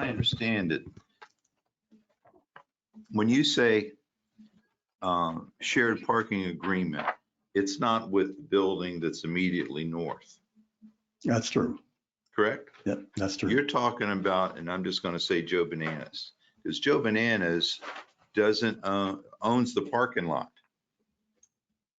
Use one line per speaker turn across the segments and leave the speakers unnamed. I understand it. When you say um, shared parking agreement, it's not with the building that's immediately north,
That's true.
correct?
Yep, that's true.
You're talking about, and I'm just going to say Joe Bananas, because Joe Bananas doesn't, uh, owns the parking lot.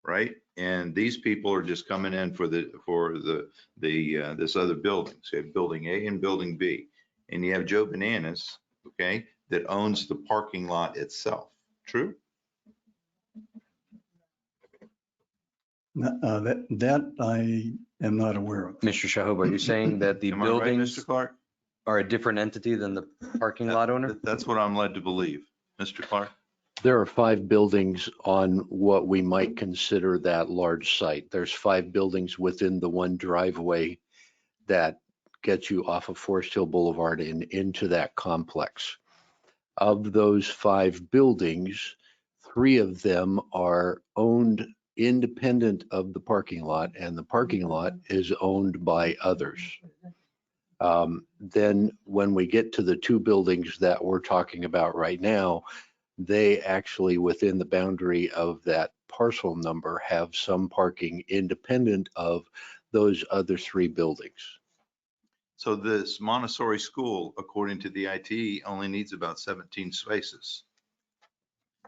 Right? And these people are just coming in for the, for the, the, uh, this other building. So you have building A and building B. And you have Joe Bananas, okay, that owns the parking lot itself. True?
Uh, That, that I am not aware of.
Mr. Shahab, are you saying that the
Am I right,
buildings
Mr. Clark?
are a different entity than the parking lot owner?
That- That's what I'm led to believe. Mr. Clark?
There are five buildings on what we might consider that large site. There's five buildings within the one driveway that gets you off of Forest Hill Boulevard and into that complex. Of those five buildings, three of them are owned independent of the parking lot, and the parking lot is owned by others. Um, Then when we get to the two buildings that we're talking about right now, they actually, within the boundary of that parcel number, have some parking independent of those other three buildings.
So this Montessori school, according to the IT, only needs about 17 spaces.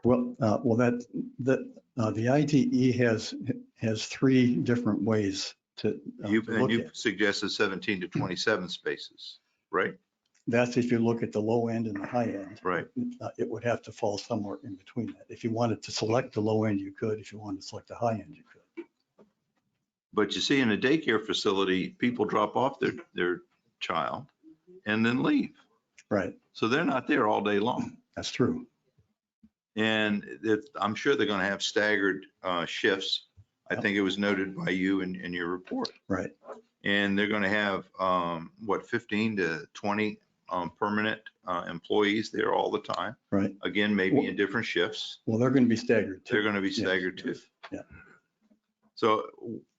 Well, uh, well, that, that, uh, the ITE has, has three different ways to. uh,
You,
to
and
look
you
at. Hmm.
suggested 17 to 27 spaces, right?
That's if you look at the low end and the high end.
Right.
Uh, It would have to fall somewhere in between that. If you wanted to select the low end, you could. If you wanted to select the high end, you could.
But you see, in a daycare facility, people drop off their, their child and then leave.
Right,
So they're not there all day long.
that's true.
And it, I'm sure they're going to have staggered uh, shifts. I think it was noted by you in, in your report.
Right.
And they're going to have, um, what, 15 to 20 um, permanent uh, employees there all the time.
Right.
Again, maybe in different shifts.
Well, they're going to be staggered
They're
too.
going to be
Yes,
staggered too.
yes, yeah.
So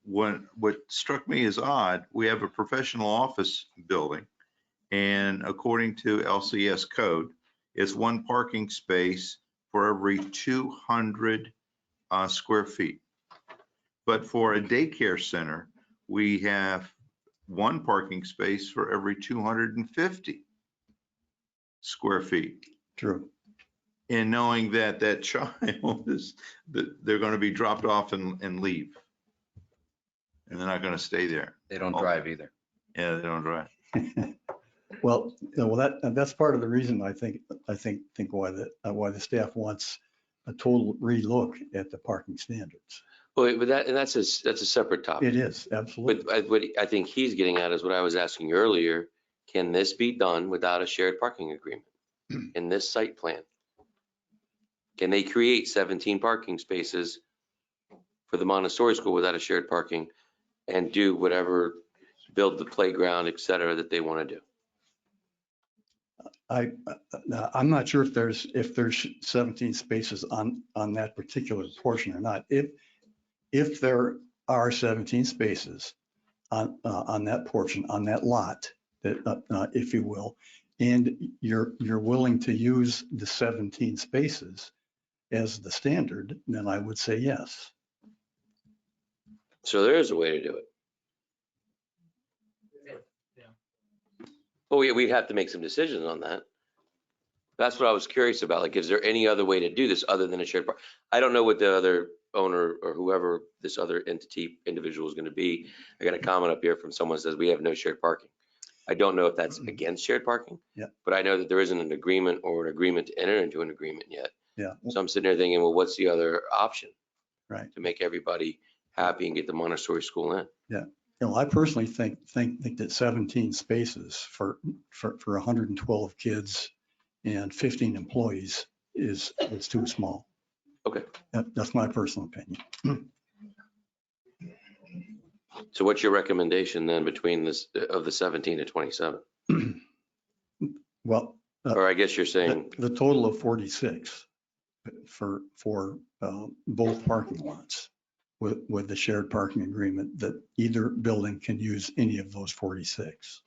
what, what struck me as odd, we have a professional office building. And according to LCS code, it's one parking space for every 200 uh, square feet. But for a daycare center, we have one parking space for every 250 square feet
True.
and knowing that that child is, that they're going to be dropped off and, and leave. And they're not going to stay there.
They don't drive either.
Yeah, they don't drive.
Well, no, well, that, that's part of the reason I think, I think, think why the, uh, why the staff wants a total relook at the parking standards.
Well, but that, and that's a, s- that's a separate
It
topic.
is, absolutely.
But I- what I think he's getting at is what I was asking earlier. Can this be done without a shared parking agreement in this site plan? Can they create 17 parking spaces for the Montessori school without a shared parking and do whatever, build the playground, et cetera, that they want to do?
I, uh, I'm not sure if there's, if there's 17 spaces on, on that particular portion or not. If, if there are 17 spaces on, uh, on that portion, on that lot, that, uh, uh, if you will, and you're, you're willing to use the 17 spaces as the standard, then I would say yes.
So there is a way to do it. Well, we, we'd have to make some decisions on that. That's what I was curious about. Like, is there any other way to do this other than a shared park? I don't know what the other owner or whoever this other entity individual is going to be. I got a comment up here from someone says we have no shared parking. I don't know if that's against shared parking.
Yeah.
But I know that there isn't an agreement or an agreement to enter into an agreement yet.
Yeah.
So I'm sitting there thinking, well, what's the other option?
Right.
To make everybody happy and get the Montessori school in.
You know, I personally think, think, think that 17 spaces for, for, for 112 kids and 15 employees is, is too small.
Okay.
That, that's my personal opinion.
So what's your recommendation then between this, of the 17 to 27?
Well,
Or I guess you're
Uh, the
saying,
the total of 46 for, for uh, both parking lots with, with the shared parking agreement that either building can use any of those 46.